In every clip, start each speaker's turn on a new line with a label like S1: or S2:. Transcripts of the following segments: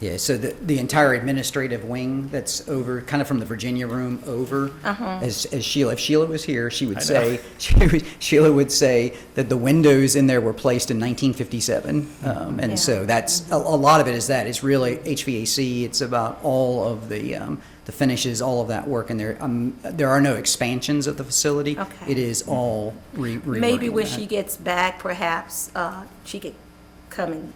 S1: Yeah, so the, the entire administrative wing that's over, kind of from the Virginia room over,
S2: Uh-huh.
S1: as, as Sheila, if Sheila was here, she would say, she would- Sheila would say that the windows in there were placed in 1957. Um,
S2: Yeah.
S1: And so that's, a, a lot of it is that, it's really HVAC, it's about all of the, um, the finishes, all of that work in there. Um, There are no expansions of the facility.
S2: Okay.
S1: It is all re- reworking
S2: Maybe when
S1: that.
S2: she gets back, perhaps, uh, she could come and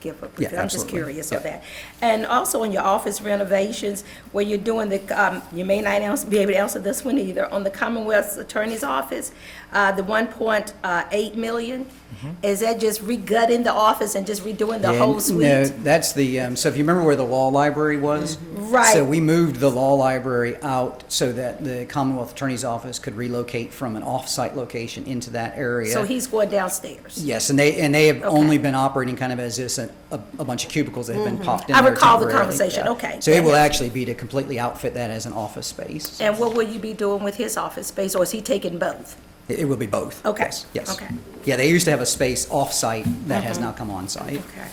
S2: give a,
S1: Yeah,
S2: I'm just
S1: absolutely.
S2: curious of
S1: Yeah.
S2: that. And also on your office renovations, where you're doing the, um, you may not ans- be able to answer this one either, on the Commonwealth's Attorney's Office, uh, the one point uh, eight million, is that just regutting the office and just redoing the
S1: Yeah,
S2: whole
S1: n-
S2: suite?
S1: Mm-hmm.
S2: Mm-hmm.
S1: No, that's the, um, so if you remember where the law library was?
S2: Right.
S1: So we moved the law library out so that the Commonwealth Attorney's Office could relocate from an off-site location into that area.
S2: So he's going downstairs?
S1: Yes, and they, and they have only
S2: Okay.
S1: been operating kind of as this, a, a a bunch of cubicles that have been popped in
S2: Mm-hmm. I
S1: there
S2: recall the
S1: temporarily.
S2: conversation.
S1: Yeah.
S2: Okay.
S1: So it will
S2: Yeah.
S1: actually be to completely outfit that as an office space.
S2: And what will you be doing with his office space, or is he taking both?
S1: It it will be both.
S2: Okay.
S1: Yes, yes.
S2: Okay. Mm-hmm.
S1: Yeah, they used to have a space off-site that has now come on-site.
S2: Okay,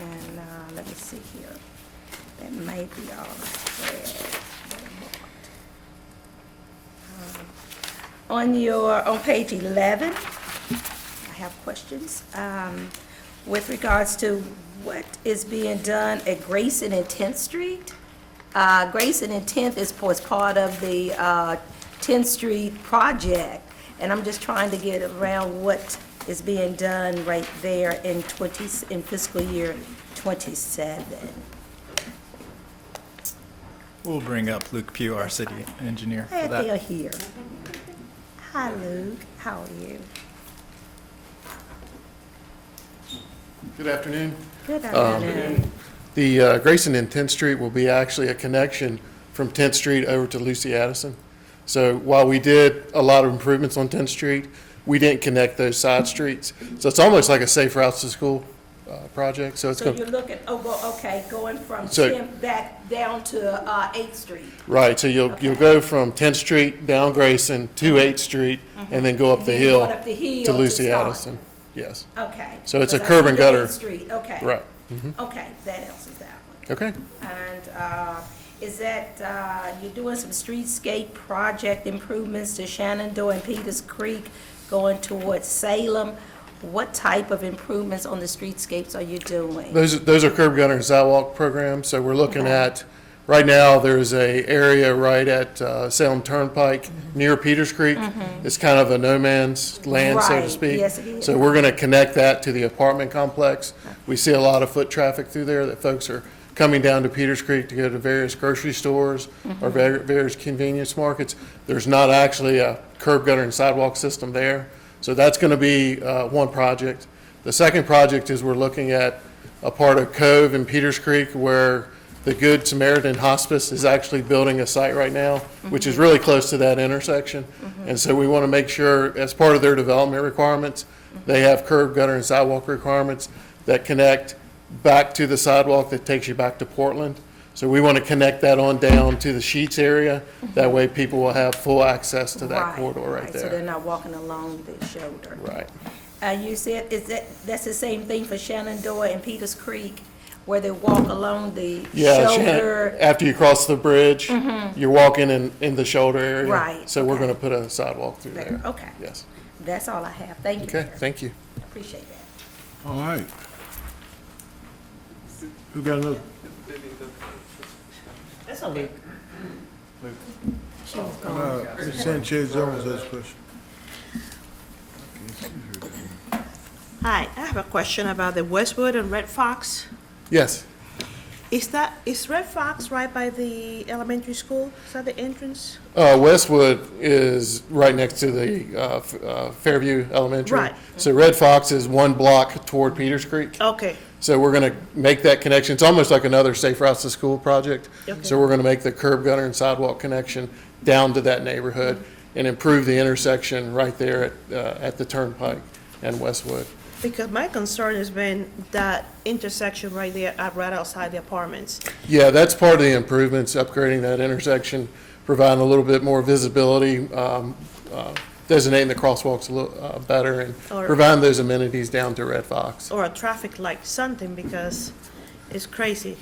S2: and, uh, let me see here. That might be all I had. Um, On your, on page eleven, I have questions, um, with regards to what is being done at Grayson and Tenth Street. Uh, Grayson and Tenth is, was part of the, uh, Tenth Street project, and I'm just trying to get around what is being done right there in twenty, in fiscal year twenty-seven.
S3: We'll bring up Luke Pugh, our city engineer, for
S2: Glad they're
S3: that.
S2: here. Hi, Luke, how are you?
S4: Good afternoon.
S2: Good afternoon.
S4: The uh, Grayson and 10th Street will be actually a connection from 10th Street over to Lucy Addison. So while we did a lot of improvements on 10th Street, we didn't connect those side streets. So it's almost like a safe routes to school uh, project, so it's
S2: So
S4: going to
S2: you're looking, oh, well, okay, going from
S4: So-
S2: 10th back down to uh, 8th Street.
S4: Right, so you'll, you'll go from 10th Street down Grayson to 8th Street, and then go up the
S2: Then you
S4: hill
S2: go up the hill
S4: to
S2: to
S4: Lucy
S2: start.
S4: Addison. Yes,
S2: Okay.
S4: So it's a
S2: Because I
S4: curb
S2: see
S4: and
S2: the
S4: gutter.
S2: 8th Street, okay.
S4: right, Mm-hmm.
S2: Okay, that answers that one.
S4: okay.
S2: And uh, is that, uh, you're doing some streetscape project improvements to Shenandoah and Peters Creek going towards Salem? What type of improvements on the streetscapes are you doing?
S4: Those, those are curb gutter and sidewalk programs, so we're looking at, right now, there's a area right at uh, Salem Turnpike near Peters Creek. It's kind of a no man's land, so to
S2: Mm-hmm. Right,
S4: speak.
S2: yes, it is.
S4: So we're gonna connect that to the apartment complex. We see a lot of foot traffic through there, that folks are coming down to Peters Creek to go to various grocery stores
S2: Mm-hmm.
S4: or var- various convenience markets. There's not actually a curb gutter and sidewalk system there, so that's gonna be, uh, one project. The second project is we're looking at a part of Cove and Peters Creek where the Good Samaritan Hospice is actually building a site right now, which
S2: Mm-hmm.
S4: is really close to that intersection. And so we want to make sure, as part of their development requirements,
S2: Mm-hmm.
S4: they have curb, gutter, and sidewalk requirements that connect back to the sidewalk that takes you back to Portland. So we want to connect that on down to the Sheets area. That way people will have full access to that
S2: Mm-hmm. Right,
S4: corridor right
S2: So they're
S4: there.
S2: not walking along the shoulder.
S4: Right.
S2: And Uh, you said, is that, that's the same thing for Shenandoah and Peters Creek, where they walk along the
S4: Yeah, Shannon-
S2: shoulder? Mm-hmm.
S4: after you cross the bridge, you're walking in, in the shoulder area.
S2: Right,
S4: So we're
S2: okay.
S4: gonna put a sidewalk through
S2: There,
S4: there.
S2: okay.
S4: Yes.
S2: That's all I have. Thank you.
S4: Okay,
S2: Mayor.
S4: thank you.
S2: Appreciate that.
S5: All right. Who got another?
S2: She was gone.
S5: Uh, Ms. Sanchez Owens has a question.
S6: Hi, I have a question about the Westwood and Red Fox.
S4: Yes,
S6: Is that, is Red Fox right by the elementary school? Is that the entrance?
S4: uh, Westwood is right next to the, uh, F- uh, Fairview Elementary.
S6: Right.
S4: So Red Fox is one block toward Peters Creek.
S2: Oh.
S6: Okay,
S4: So we're gonna make that connection. It's almost like another Safe Routes to School project.
S6: Okay.
S4: So we're gonna make the curb gutter and sidewalk connection down to that neighborhood and improve the intersection right there at, uh, at the Turnpike and Westwood.
S6: because my concern has been that intersection right there, uh, right outside the apartments.
S4: Yeah, that's part of the improvements, upgrading that intersection, providing a little bit more visibility, um, uh, designating the crosswalks a little uh, better, and
S6: Or-
S4: providing those amenities down to Red Fox.
S6: Or a traffic light, something, because it's crazy